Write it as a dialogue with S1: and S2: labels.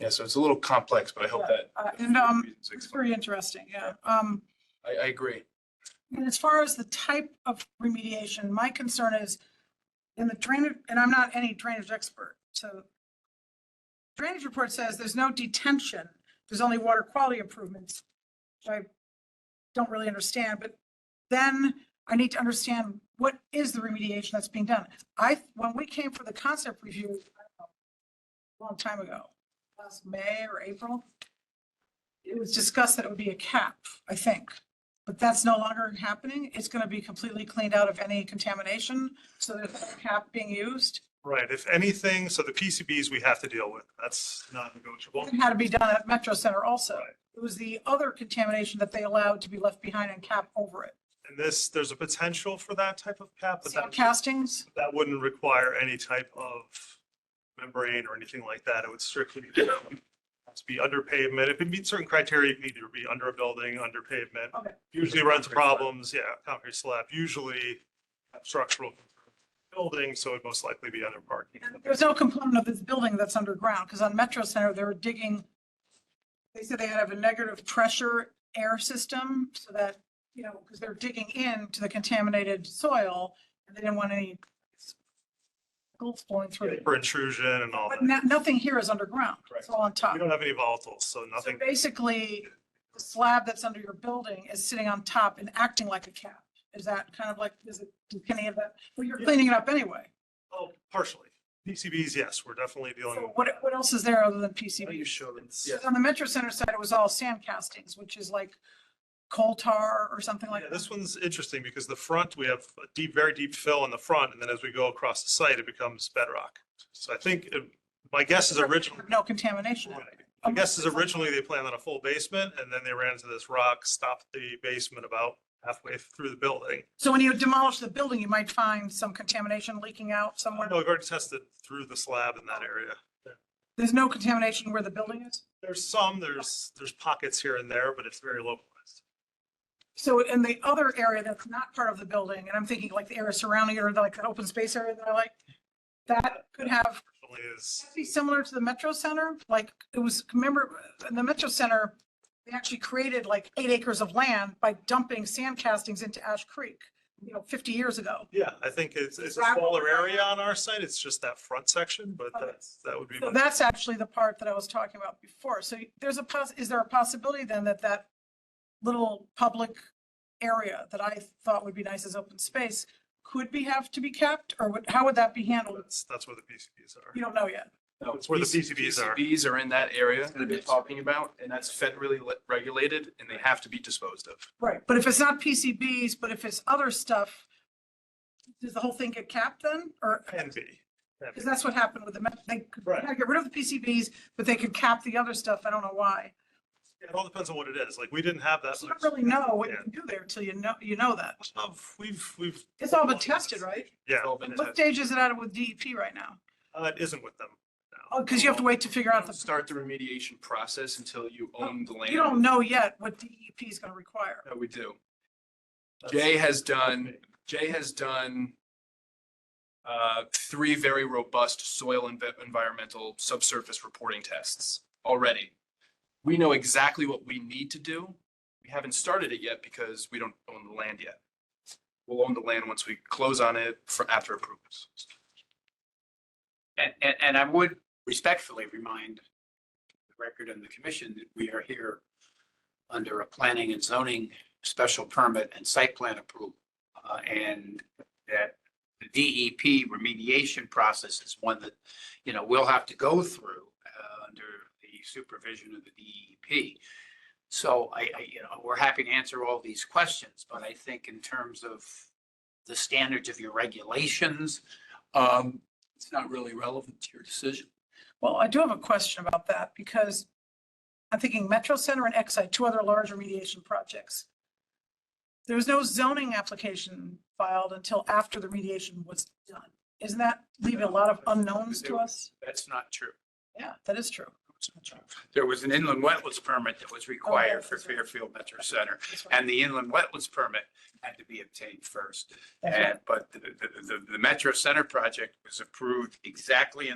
S1: Yeah, so it's a little complex, but I hope that.
S2: Uh, And um,
S1: reasons
S2: it's
S1: explain.
S2: very interesting, yeah. Um,
S1: I, I agree.
S2: And as far as the type of remediation, my concern is in the drainage, and I'm not any drainage expert, so drainage report says there's no detention, there's only water quality improvements, which I don't really understand, but then I need to understand what is the remediation that's being done. I, when we came for the concept review, I don't know, a long time ago, last May or April, it was discussed that it would be a cap, I think. But that's no longer happening. It's going to be completely cleaned out of any contamination. So there's no cap being used.
S3: Right, if anything, so the PCBs we have to deal with, that's not negotiable.
S2: It had to be done at Metro Center also.
S3: Right.
S2: It was the other contamination that they allowed to be left behind and cap over it.
S3: And this, there's a potential for that type of cap, but
S2: Sand
S3: that,
S2: castings,
S3: that wouldn't require any type of membrane or anything like that. It would strictly you know, have to be under pavement. If it meets certain criteria, it need to be under a building, under pavement.
S2: Okay.
S3: Usually runs
S1: Concrete slab.
S3: problems, yeah, concrete slab, usually structural building, so it'd most likely be under parking.
S2: there's no component of this building that's underground because on Metro Center, they were digging. They said they had to have a negative pressure air system so that, you know, because they're digging into the contaminated soil and they didn't want any gold flowing through it.
S3: For intrusion and all
S2: But
S3: that.
S2: no- nothing here is underground. It's
S1: Correct.
S2: all on top.
S3: We don't have any volatiles, so
S2: So
S3: nothing
S2: basically, the slab that's under your building is sitting on top and acting like a cap. Is that kind of like, is it, can any of that, well, you're cleaning it up anyway.
S3: Oh, partially. PCBs, yes, we're definitely dealing
S2: So
S3: with. Oh,
S2: what, what else is there other than
S1: Why don't
S2: PCB?
S1: you show them?
S3: It's-
S1: Yeah,
S2: On the Metro Center side, it was all sand castings, which is like coal tar or something like
S3: Yeah,
S2: that.
S3: this one's interesting because the front, we have a deep, very deep fill in the front, and then as we go across the site, it becomes bedrock. So I think, uh, my guess is originally,
S2: No contamination. Um, in it.
S3: my guess is originally they planned on a full basement, and then they ran into this rock, stopped the basement about halfway through the building.
S2: So when you demolish the building, you might find some contamination leaking out somewhere. Oh.
S3: No, we've already tested through the slab in that area.
S2: There's no contamination where the building is?
S3: There's some, there's, there's pockets here and there, but it's very localized.
S2: So in the other area that's not part of the building, and I'm thinking like the area surrounding it or like that open space area that I like, that could have,
S3: Definitely is,
S2: be similar to the Metro Center, like it was, remember, in the Metro Center, they actually created like eight acres of land by dumping sand castings into Ash Creek, you know, 50 years ago.
S3: yeah, I think it's, it's a
S2: Rock-
S3: smaller area on our site. It's just that front section, but
S2: Okay.
S3: that's, that would be.
S2: So
S3: my-
S2: that's actually the part that I was talking about before. So there's a poss, is there a possibility then that that little public area that I thought would be nice as open space could be, have to be kept? Or would, how would that be handled?
S3: That's, that's where the PCBs are.
S2: You don't know yet.
S1: no,
S3: It's where the PCBs are.
S1: PCBs are in that area that they're talking about, and that's federally le- regulated, and they have to be disposed of.
S2: Right. But if it's not PCBs, but if it's other stuff, does the whole thing get capped then? Or,
S3: Can be. Can be.
S2: because that's what happened with the, met- they could
S3: Right.
S2: kinda get rid of the PCBs, but they could cap the other stuff. I don't know why.
S3: It all depends on what it is. Like, we didn't have that.
S2: So you
S3: much
S2: don't really know what you
S3: Yeah.
S2: can do there till you know, you know that.
S3: of- We've, we've,
S2: It's all been tested, right?
S3: yeah,
S1: It's all been
S2: What
S1: tested.
S2: stage is it at with DEP right now?
S3: uh, it isn't with them.
S2: Oh, because you have to wait to figure out the,
S1: Start the remediation process until you own the land.
S2: you don't know yet what DEP is going to require.
S1: No, we do.
S3: That's-
S1: Jay has done, Jay has done uh, three very robust soil and ve- environmental subsurface reporting tests already. We know exactly what we need to do. We haven't started it yet because we don't own the land yet. We'll own the land once we close on it for after approvals.
S4: And, and, and I would respectfully remind the record and the commission that we are here under a planning and zoning special permit and site plan approval. Uh, and that the DEP remediation process is one that, you know, we'll have to go through, uh, under the supervision of the DEP. So I, I, you know, we're happy to answer all these questions, but I think in terms of the standards of your regulations, um, it's not really relevant to your decision.
S2: Well, I do have a question about that because I'm thinking Metro Center and Exide, two other large remediation projects. There was no zoning application filed until after the remediation was done. Isn't that leaving a lot of unknowns to us?
S4: That's not true.
S2: Yeah, that is true.
S4: There was an inland wetlands permit that was required
S2: Oh,
S4: for Fairfield Metro Center,
S2: That's right.
S4: and the inland wetlands permit had to be obtained first.
S2: That's right.
S4: And, but the, the, the- the Metro Center project was approved exactly in